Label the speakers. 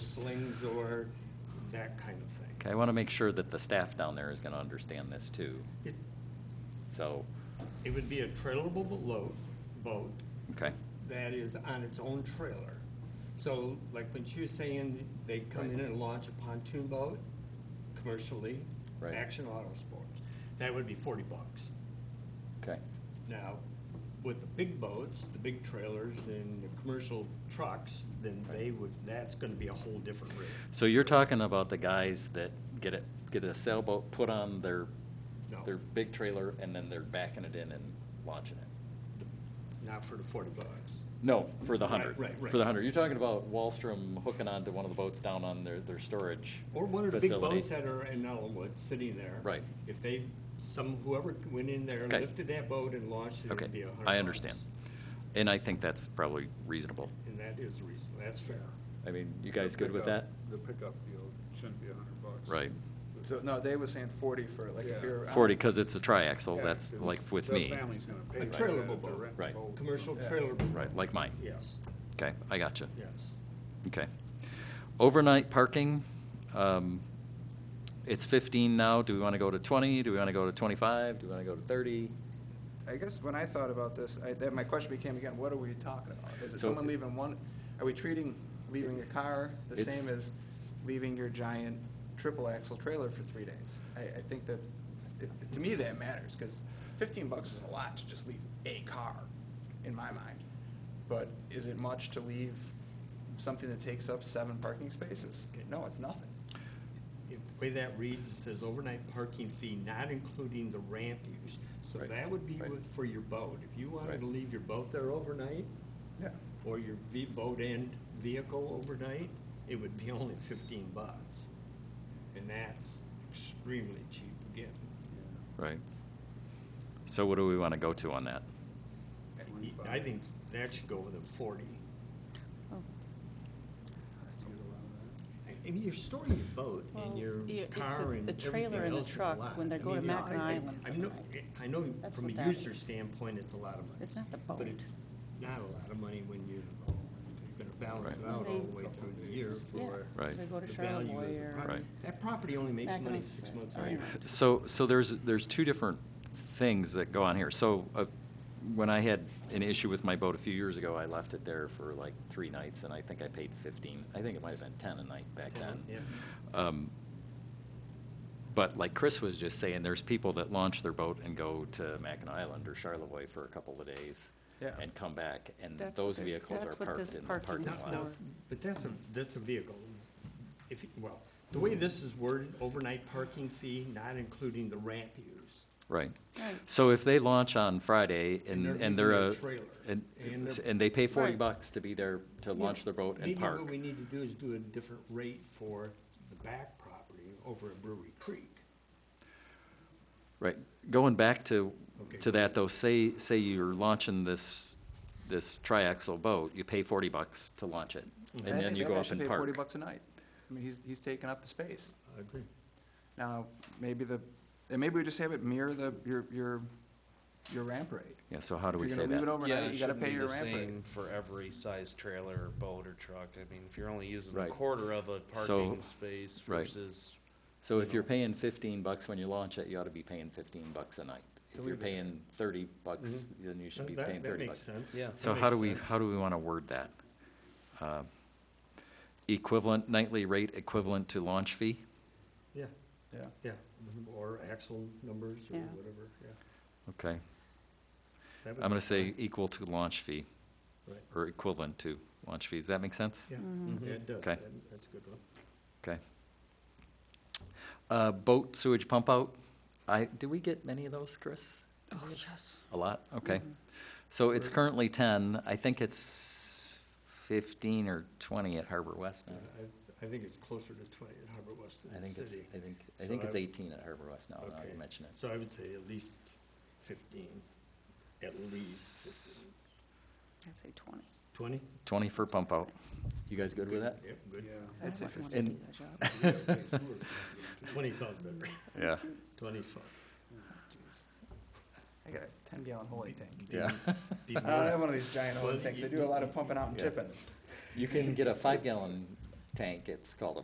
Speaker 1: slings or that kind of thing.
Speaker 2: Okay, I want to make sure that the staff down there is going to understand this too.
Speaker 1: It,
Speaker 2: So,
Speaker 1: it would be a trailable boat, boat
Speaker 2: okay,
Speaker 1: that is on its own trailer. So like when she was saying, they come in and launch a pontoon boat commercially,
Speaker 2: Right.
Speaker 1: Action Auto Sports, that would be forty bucks.
Speaker 2: okay,
Speaker 1: Now, with the big boats, the big trailers and the commercial trucks, then they would, that's gonna be a whole different rate.
Speaker 2: so you're talking about the guys that get it, get a sailboat put on their,
Speaker 1: No.
Speaker 2: their big trailer and then they're backing it in and launching it?
Speaker 1: Not for the forty bucks.
Speaker 2: No, for the
Speaker 1: Right,
Speaker 2: hundred.
Speaker 1: right, right.
Speaker 2: For the hundred, you're talking about Wallstrom hooking onto one of the boats down on their, their storage
Speaker 1: Or one of the big
Speaker 2: facility.
Speaker 1: boats that are in Ellenwood, sitting there.
Speaker 2: Right.
Speaker 1: If they, some, whoever went in there,
Speaker 2: Okay.
Speaker 1: lifted that boat and launched it,
Speaker 2: Okay,
Speaker 1: it'd be a hundred
Speaker 2: I understand.
Speaker 1: bucks.
Speaker 2: And I think that's probably reasonable.
Speaker 1: And that is reasonable, that's fair.
Speaker 2: I mean, you guys
Speaker 3: The
Speaker 2: good with that?
Speaker 3: pickup- The pickup deal shouldn't be a hundred bucks.
Speaker 2: Right.
Speaker 4: So, no, they were saying forty for, like, if
Speaker 3: Yeah.
Speaker 4: you're. out-
Speaker 2: Forty, because it's a triaxle,
Speaker 3: Yeah,
Speaker 2: that's
Speaker 3: 'cause
Speaker 2: like with
Speaker 3: the
Speaker 2: me.
Speaker 3: family's gonna pay
Speaker 1: A
Speaker 3: for
Speaker 1: trailable
Speaker 3: that if
Speaker 1: boat.
Speaker 3: they rent a
Speaker 2: Right.
Speaker 3: boat.
Speaker 1: Commercial
Speaker 4: Yeah.
Speaker 1: trailer boat.
Speaker 2: Right, like mine.
Speaker 1: Yes,
Speaker 2: Okay, I gotcha.
Speaker 1: yes.
Speaker 2: Okay. Overnight parking, um, it's fifteen now. Do we want to go to twenty? Do we want to go to twenty-five? Do we want to go to thirty?
Speaker 4: I guess when I thought about this, I, that, my question became again, what are we talking about? Is it
Speaker 2: So-
Speaker 4: someone leaving one, are we treating leaving a car the
Speaker 2: It's-
Speaker 4: same as leaving your giant triple axle trailer for three days? I, I think that, it- to me, that matters, because fifteen bucks is a lot to just leave a car, in my mind. But is it much to leave something that takes up seven parking spaces? No, it's nothing.
Speaker 1: If the way that reads, it says overnight parking fee, not including the ramp use. So
Speaker 2: Right,
Speaker 1: that would be
Speaker 2: right.
Speaker 1: with- for your boat. If you wanted to
Speaker 2: Right.
Speaker 1: leave your boat there overnight,
Speaker 4: Yeah.
Speaker 1: or your ve- boat and vehicle overnight, it would be only fifteen bucks. And that's extremely cheap again.
Speaker 2: Right. So what do we want to go to on that?
Speaker 1: I think that should go with a forty.
Speaker 5: Oh,
Speaker 1: And you're storing your boat and
Speaker 5: Well,
Speaker 1: your
Speaker 5: yeah, it's
Speaker 1: car
Speaker 5: a-
Speaker 1: and
Speaker 5: the trailer
Speaker 1: everything
Speaker 5: and
Speaker 1: else
Speaker 5: the
Speaker 1: in the
Speaker 5: truck
Speaker 1: lot.
Speaker 5: when they're
Speaker 1: I
Speaker 5: going to
Speaker 1: mean,
Speaker 5: Mackinac
Speaker 1: I-
Speaker 5: Island
Speaker 1: I
Speaker 5: for the
Speaker 1: know-
Speaker 5: night.
Speaker 1: I know
Speaker 5: That's
Speaker 1: from
Speaker 5: what
Speaker 1: a
Speaker 5: that
Speaker 1: user
Speaker 5: is.
Speaker 1: standpoint, it's a lot of money.
Speaker 5: It's not the
Speaker 1: But
Speaker 5: boat.
Speaker 1: it's not a lot of money when you, you're gonna balance it
Speaker 2: Right.
Speaker 1: out all the
Speaker 5: They-
Speaker 1: way through the year
Speaker 5: Yeah,
Speaker 1: for
Speaker 2: Right.
Speaker 5: They go to
Speaker 1: the value of the
Speaker 5: Charlevoix or.
Speaker 1: property.
Speaker 2: Right.
Speaker 1: That property only makes
Speaker 5: Mackinac
Speaker 1: money six
Speaker 5: City.
Speaker 1: months
Speaker 5: Oh,
Speaker 1: a year.
Speaker 5: yeah.
Speaker 2: So, so there's, there's two different things that go on here. So, uh, when I had an issue with my boat a few years ago, I left it there for like three nights, and I think I paid fifteen. I think it might have been ten a night back then.
Speaker 1: Yeah.
Speaker 2: Um, But like Chris was just saying, there's people that launch their boat and go to Mackinac Island or Charlevoix for a couple of days
Speaker 4: Yeah.
Speaker 2: and come back, and
Speaker 5: That's what
Speaker 2: those
Speaker 5: they-
Speaker 2: vehicles are
Speaker 5: that's what
Speaker 2: parked
Speaker 5: this
Speaker 2: in the
Speaker 5: parking
Speaker 2: parking
Speaker 1: Now-
Speaker 5: is
Speaker 1: now,
Speaker 2: lot.
Speaker 5: for.
Speaker 1: But that's a, that's a vehicle. If, you- well, the way this is worded, overnight parking fee, not including the ramp use.
Speaker 2: Right.
Speaker 5: Right.
Speaker 2: So if they launch on Friday
Speaker 1: And
Speaker 2: and,
Speaker 1: they're
Speaker 2: and they're a,
Speaker 1: leaving their trailer.
Speaker 2: and,
Speaker 1: And they're-
Speaker 2: and they pay forty
Speaker 5: Right.
Speaker 2: bucks to be there, to launch their boat and
Speaker 1: Maybe what
Speaker 2: park.
Speaker 1: we need to do is do a different rate for the back property over at Brewery Creek.
Speaker 2: Right. Going back to,
Speaker 1: Okay,
Speaker 2: to
Speaker 1: go
Speaker 2: that though, say, say you're launching this, this triaxle boat, you pay forty bucks to launch it,
Speaker 1: Mm-hmm.
Speaker 2: and
Speaker 4: I
Speaker 2: then
Speaker 4: think
Speaker 2: you
Speaker 4: that
Speaker 2: go
Speaker 4: guy
Speaker 2: up
Speaker 4: should
Speaker 2: and
Speaker 4: pay Forty
Speaker 2: park.
Speaker 4: bucks a night. I mean, he's, he's taking up the space.
Speaker 1: I agree.
Speaker 4: Now, maybe the, and maybe we just have it mirror the, your, your, your ramp rate.
Speaker 2: Yeah, so how do we
Speaker 4: If
Speaker 2: say
Speaker 4: you're gonna
Speaker 2: that?
Speaker 4: leave it
Speaker 6: Yeah,
Speaker 4: overnight,
Speaker 6: it
Speaker 4: you gotta
Speaker 6: shouldn't
Speaker 4: pay
Speaker 6: be
Speaker 4: your
Speaker 6: the
Speaker 4: ramp rate.
Speaker 6: same for every size trailer or boat or truck. I mean, if you're only using a
Speaker 2: Right.
Speaker 6: quarter of a
Speaker 2: So-
Speaker 6: parking space
Speaker 2: right.
Speaker 6: versus,
Speaker 2: So if
Speaker 6: you
Speaker 2: you're
Speaker 6: know.
Speaker 2: paying fifteen bucks when you launch it, you ought to be paying fifteen bucks a night. If you're paying thirty bucks, then you should be
Speaker 1: Mm-hmm. That-
Speaker 2: paying
Speaker 1: that
Speaker 2: thirty
Speaker 1: makes
Speaker 2: bucks.
Speaker 1: sense.
Speaker 6: Yeah.
Speaker 2: So
Speaker 1: That
Speaker 2: how do
Speaker 1: makes
Speaker 2: we,
Speaker 1: sense.
Speaker 2: how do we want to word that? Uh, Equivalent nightly rate equivalent to launch fee?
Speaker 1: Yeah,
Speaker 4: Yeah.
Speaker 1: yeah, Mm-hmm. or axle numbers or
Speaker 5: Yeah.
Speaker 1: whatever, yeah.
Speaker 2: Okay,
Speaker 1: That would
Speaker 2: I'm
Speaker 1: be
Speaker 2: gonna say
Speaker 1: fine.
Speaker 2: equal to launch fee,
Speaker 1: Right.
Speaker 2: or equivalent to launch fee. Does that make sense?
Speaker 1: Yeah, Mm-hmm. yeah, it does,
Speaker 2: Okay.
Speaker 1: That- that's a good one.
Speaker 2: Okay. Uh, boat sewage pump out, I, do we get many of those, Chris?
Speaker 5: Oh, yes.
Speaker 2: A lot, okay. So it's currently ten, I think it's fifteen or twenty at Harbor West now.
Speaker 1: Yeah, Uh, I, I think it's closer to twenty at Harbor West than
Speaker 2: I
Speaker 1: the
Speaker 2: think it's,
Speaker 1: city.
Speaker 2: I think, I
Speaker 1: So
Speaker 2: think it's
Speaker 1: I-
Speaker 2: eighteen at Harbor West now, now
Speaker 1: Okay.
Speaker 2: you mention it.
Speaker 1: So I would say at least fifteen, at least
Speaker 5: I'd say twenty.
Speaker 1: twenty.
Speaker 2: Twenty for pump out. You guys good with that?
Speaker 1: Yep, good.
Speaker 5: I
Speaker 4: I'd say
Speaker 5: wouldn't want to
Speaker 2: 15.
Speaker 5: do that job.
Speaker 1: Twenty sounds better.
Speaker 2: Yeah.
Speaker 1: Twenty's fine.
Speaker 4: I got a ten gallon holding tank.
Speaker 1: Be-
Speaker 2: Yeah.
Speaker 1: be
Speaker 4: I don't have
Speaker 1: more-
Speaker 4: one of these giant holding
Speaker 1: Well,
Speaker 4: tanks. I
Speaker 1: you-
Speaker 4: do a lot of pumping out and tipping.
Speaker 2: You can get a five gallon tank, it's called a